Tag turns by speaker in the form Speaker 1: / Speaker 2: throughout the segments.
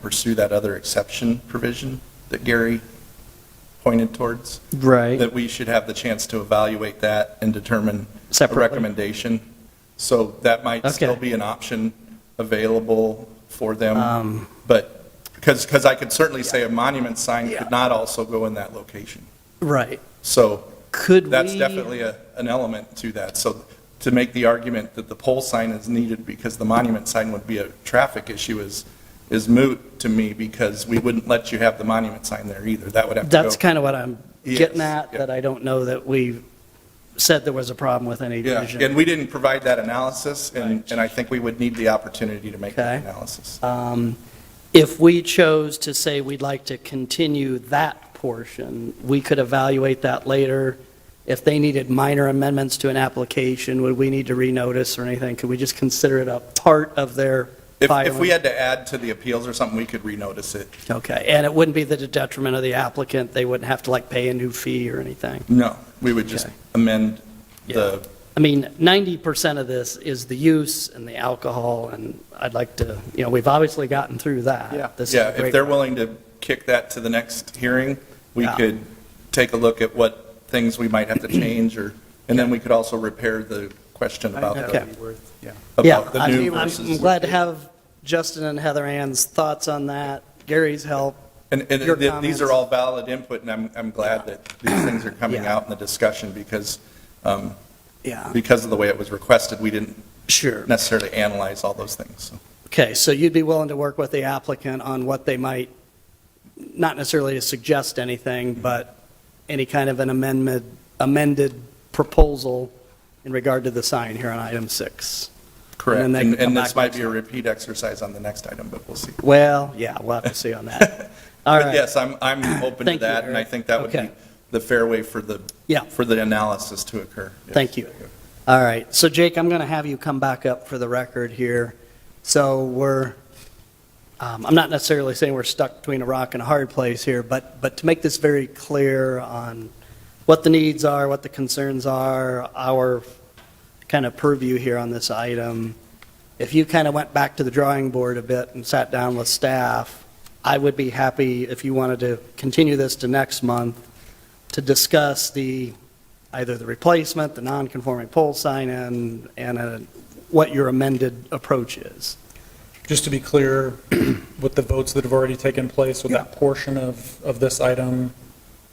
Speaker 1: pursue that other exception provision that Gary pointed towards,
Speaker 2: Right.
Speaker 1: that we should have the chance to evaluate that and determine a
Speaker 2: Separately.
Speaker 1: recommendation. So that might still
Speaker 2: Okay.
Speaker 1: be an option available for them,
Speaker 2: Um,
Speaker 1: but, because, because I could certainly say a monument sign could not also go in that location.
Speaker 2: Right.
Speaker 1: So
Speaker 2: Could we?
Speaker 1: that's definitely a, an element to that. So to make the argument that the pole sign is needed because the monument sign would be a traffic issue is, is moot to me because we wouldn't let you have the monument sign there either. That would have to go.
Speaker 2: That's kind of what I'm
Speaker 1: Yes,
Speaker 2: getting at,
Speaker 1: yeah.
Speaker 2: that I don't know that we said there was a problem with any
Speaker 1: Yeah,
Speaker 2: division.
Speaker 1: and we didn't provide that analysis and, and I think we would need the opportunity to make that
Speaker 2: Okay.
Speaker 1: analysis.
Speaker 2: Um, If we chose to say we'd like to continue that portion, we could evaluate that later. If they needed minor amendments to an application, would we need to renotice or anything? Could we just consider it a part of their,
Speaker 1: If, if
Speaker 2: Filing.
Speaker 1: we had to add to the appeals or something, we could renotice it.
Speaker 2: okay, and it wouldn't be to the detriment of the applicant, they wouldn't have to like pay a new fee or anything?
Speaker 1: No, we would just
Speaker 2: Okay.
Speaker 1: amend the,
Speaker 2: I mean, 90% of this is the use and the alcohol, and I'd like to, you know, we've obviously gotten through that. This is
Speaker 1: yeah,
Speaker 2: a
Speaker 1: if
Speaker 2: great-
Speaker 1: they're willing to kick that to the next hearing, we
Speaker 2: Yeah.
Speaker 1: could take a look at what things we might have to change or, and then we could also repair the question about
Speaker 2: that
Speaker 1: the,
Speaker 2: would Yeah,
Speaker 1: about the new
Speaker 2: I'm- I'm
Speaker 1: versus.
Speaker 2: glad to have Justin and Heather Ann's thoughts on that, Gary's help.
Speaker 1: And, and
Speaker 2: your
Speaker 1: th- these
Speaker 2: comments.
Speaker 1: are all valid input and I'm, I'm glad that these things are coming
Speaker 2: Yeah.
Speaker 1: out in the discussion because, um,
Speaker 2: Yeah,
Speaker 1: because of the way it was requested, we didn't
Speaker 2: sure.
Speaker 1: necessarily analyze all those things. so.
Speaker 2: Okay, so you'd be willing to work with the applicant on what they might, not necessarily to suggest anything, but any kind of an amendment, amended proposal in regard to the sign here on item six?
Speaker 1: Correct.
Speaker 2: And then they
Speaker 1: And
Speaker 2: can come
Speaker 1: and this
Speaker 2: back
Speaker 1: might
Speaker 2: next
Speaker 1: be a repeat exercise on the next item, but we'll see.
Speaker 2: Well, yeah, we'll have to see on that. All
Speaker 1: But
Speaker 2: right,
Speaker 1: yes, I'm, I'm open to
Speaker 2: Thank you,
Speaker 1: that, and I
Speaker 2: Eric.
Speaker 1: think that would be
Speaker 2: Okay.
Speaker 1: the fair way for the,
Speaker 2: Yeah.
Speaker 1: for the analysis to occur. Yes.
Speaker 2: Thank you. all right. So Jake, I'm going to have you come back up for the record here. So we're, um, I'm not necessarily saying we're stuck between a rock and a hard place here, but, but to make this very clear on what the needs are, what the concerns are, our kind of purview here on this item, if you kind of went back to the drawing board a bit and sat down with staff, I would be happy if you wanted to continue this to next month to discuss the, either the replacement, the non-conforming pole sign, and, and uh, what your amended approach is.
Speaker 3: Just to be clear, with the votes that have already taken place, would that portion of, of this item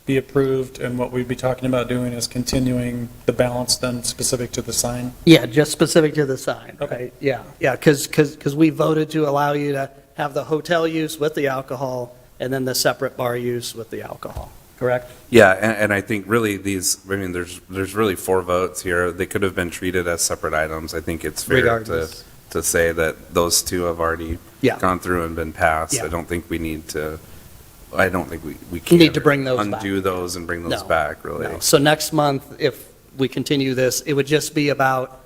Speaker 3: be approved? And what we'd be talking about doing is continuing the balance then specific to the sign?
Speaker 2: Yeah, just specific to the sign,
Speaker 3: Okay.
Speaker 2: right? Yeah, yeah, because, because, we voted to allow you to have the hotel use with the alcohol, and then the separate bar use with the alcohol, correct?
Speaker 4: Yeah, and, and I think really these, I mean, there's, there's really four votes here. They could have been treated as separate items. I think it's fair to,
Speaker 2: Regardless.
Speaker 4: to say that those two have already
Speaker 2: Yeah.
Speaker 4: gone through and been passed.
Speaker 2: Yeah.
Speaker 4: I don't think we need to, I don't think we,
Speaker 2: You
Speaker 4: we can.
Speaker 2: need to bring those
Speaker 4: Undo those and bring those
Speaker 2: No.
Speaker 4: back, really.
Speaker 2: No. So next month, if we continue this, it would just be about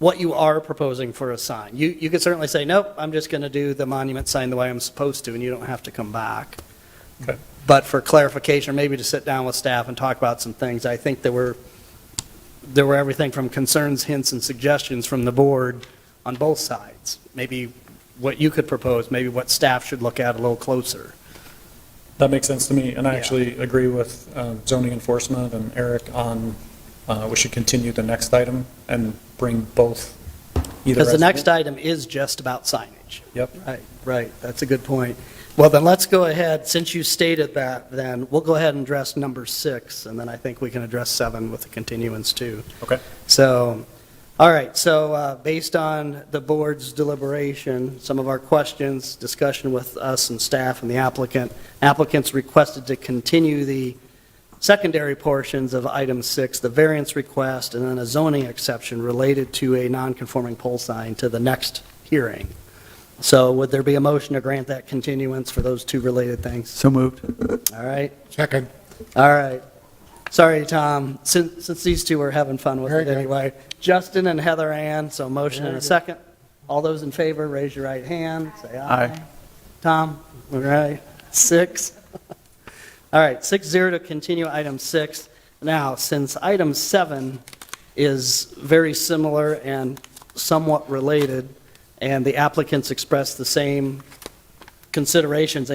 Speaker 2: what you are proposing for a sign. You, you could certainly say, nope, I'm just going to do the monument sign the way I'm supposed to, and you don't have to come back.
Speaker 3: Okay.
Speaker 2: But for clarification, maybe to sit down with staff and talk about some things, I think there were, there were everything from concerns, hints, and suggestions from the board on both sides. Maybe what you could propose, maybe what staff should look at a little closer.
Speaker 3: That makes sense to me, and I
Speaker 2: Yeah.
Speaker 3: actually agree with um, zoning enforcement and Eric on, uh, we should continue the next item and bring both. either
Speaker 2: Because the
Speaker 3: as-
Speaker 2: next item is just about signage.
Speaker 3: Yep.
Speaker 2: Right, right, that's a good point. Well, then let's go ahead, since you stated that, then we'll go ahead and address number six, and then I think we can address seven with the continuance too.
Speaker 3: Okay.
Speaker 2: So, all right, so uh, based on the board's deliberation, some of our questions, discussion with us and staff and the applicant, applicants requested to continue the secondary portions of item six, the variance request, and then a zoning exception related to a non-conforming pole sign to the next hearing. So would there be a motion to grant that continuance for those two related things?
Speaker 5: So moved.
Speaker 2: All right,
Speaker 6: Second.
Speaker 2: all right. Sorry, Tom, since, since these two are having fun with
Speaker 6: Very
Speaker 2: it
Speaker 6: good.
Speaker 2: anyway. Justin and Heather Ann, so motion and a second. All those in favor, raise your right hand, say aye.
Speaker 5: Aye.
Speaker 2: Tom, all right, six. All right, six zero to continue item six. Now, since item seven is very similar and somewhat related, and the applicants expressed the same considerations